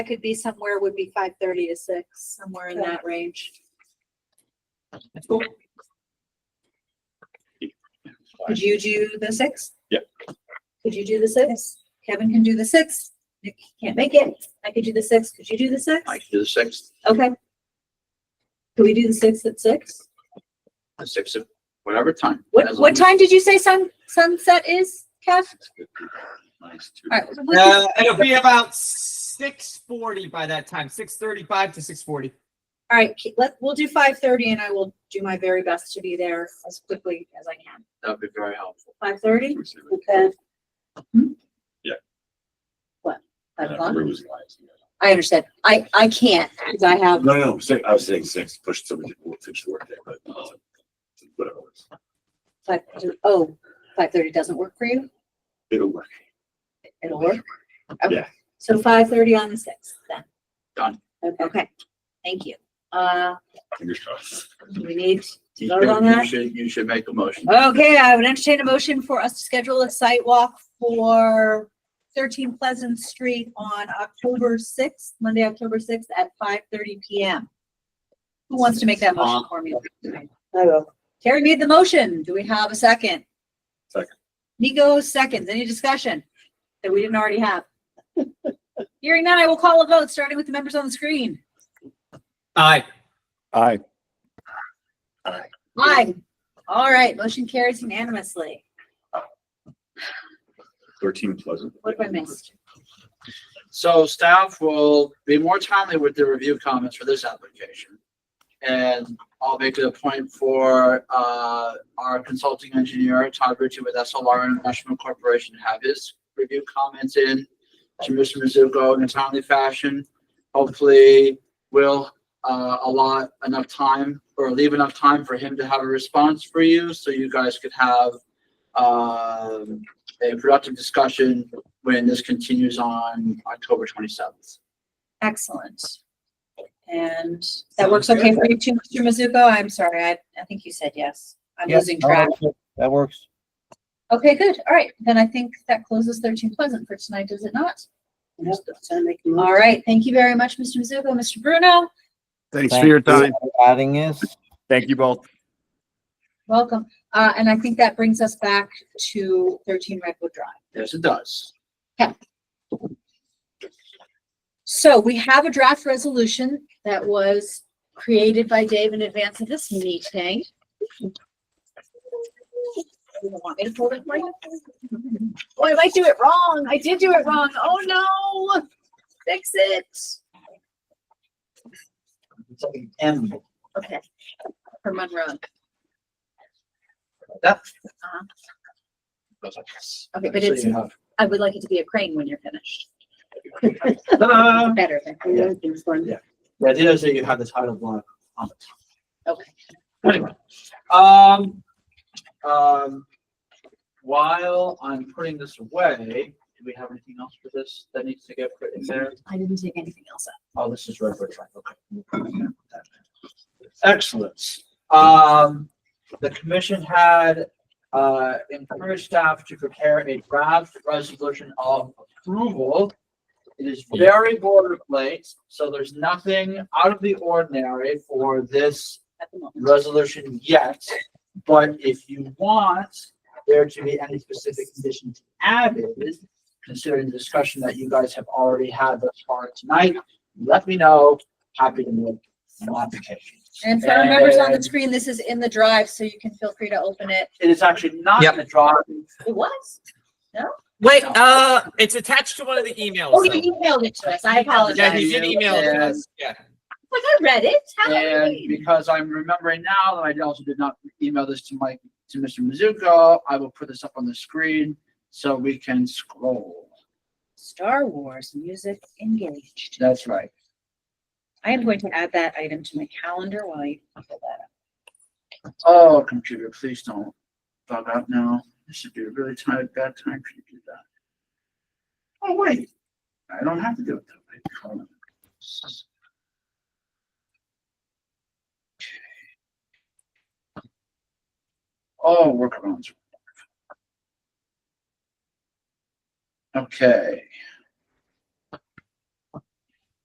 I could be somewhere would be five thirty to six, somewhere in Okay. that range. Could you do the sixth? Yep. Could you do the sixth? Kevin can do the sixth. Nick can't make it. I could do the sixth. Could you do the sixth? I can do the sixth, Okay. Can we do the sixth at six? the sixth, of whatever time. What, As what long time did you say sun, sunset is, Kev? as it's good. Nice, too. All right, so we can- Uh, it'll be about six forty by that time, six thirty-five to six forty. all right, ke- let, we'll do five thirty and I will do my very best to be there as quickly as I can. That'd be very helpful. Five thirty? Okay. Hmm? Yeah. What? I Five don't o'clock? remember who's last. I understand. I, I can't, because I have, No, no, no, six, I was saying six, push somebody, we'll finish work day, but uh, whatever. it is. five, oh, five thirty doesn't work for you? It'll work. It'll work? Okay. Yeah. So five thirty on the sixth then? Done. Okay, thank you. Uh, Fingers crossed. do we need, You Vote on should- you that? should, you should make a motion. okay, I would entertain a motion for us to schedule a site walk for thirteen Pleasant Street on October sixth, Monday, October sixth at five thirty PM. Who wants to make that motion for me? I will. Terry made the motion. Do we have a second? Second. Nico seconds. Any discussion that we didn't already have? Hearing none, I will call a vote, starting with the members on the screen. Aye. Aye. Aye. All right, motion carries unanimously. Thirteen Pleasant. What have I missed? So staff will be more timely with the review comments for this application. And I'll make it a point for, uh, our consulting engineer, Todd Ritchie with SLR International Corporation, to have his review comments in to Mr. Mizuko in a timely fashion. Hopefully, we'll, uh, allot enough time or leave enough time for him to have a response for you, so you guys could have, um, a productive discussion when this continues on October twenty-seventh. Excellent. And that works okay for you too, Mr. Mizuko? I'm sorry, I, I think you said yes. I'm losing track. That works. Okay, good. All right, then I think that closes thirteen Pleasant for tonight, does it not? Yep, so I make a motion. All right, thank you very much, Mr. Mizuko, Mr. Bruno. Thanks for your time. Adding us. Thank you both. Welcome. Uh, and I think that brings us back to thirteen Redwood Drive. Yes, it does. So we have a draft resolution that was created by Dave in advance of this meeting. You Want me to pull it for you? Oh, I might do it wrong. I did do it wrong. Oh, no. Fix it. Okay. For Monroe. That. Uh-huh. That's like, yes. Okay, but So you it's, have- I would like it to be a crane when you're finished. Ta-da! Better than. I know there's one. The idea is that you have the title block on the top. Okay. Anyway, um, um, while I'm putting this away, do we have anything else for this that needs to get put in there? I didn't take anything else up. Oh, this is Redwood Drive, okay. Excellent. Um, the commission had, uh, encouraged staff to prepare a draft resolution of approval. It is very boilerplate, so there's nothing out of the ordinary for this At the moment. resolution yet. But if you want there to be any specific conditions added, considering the discussion that you guys have already had thus far tonight, let me know. Happy to make modifications. And for our members on the screen, this is in the drive, so you can feel free to open it. It is actually not Yep. in the draw. It was? Wait, uh, it's attached to one of the emails. Oh, though. you emailed it to us. I Yeah, apologize. he did email it to us. Yeah. Like, I read it. How did And we- because I'm remembering now that I also did not email this to Mike, to Mr. Mizuko, I will put this up on the screen so we can scroll. Star Wars music engaged. That's right. I am going to add that item to my calendar while you pull that up. Oh, computer, please don't bug out now. This should be a really tight, bad time for you to do that. Oh, wait, I don't have to do it that way. Oh, workarounds. Okay.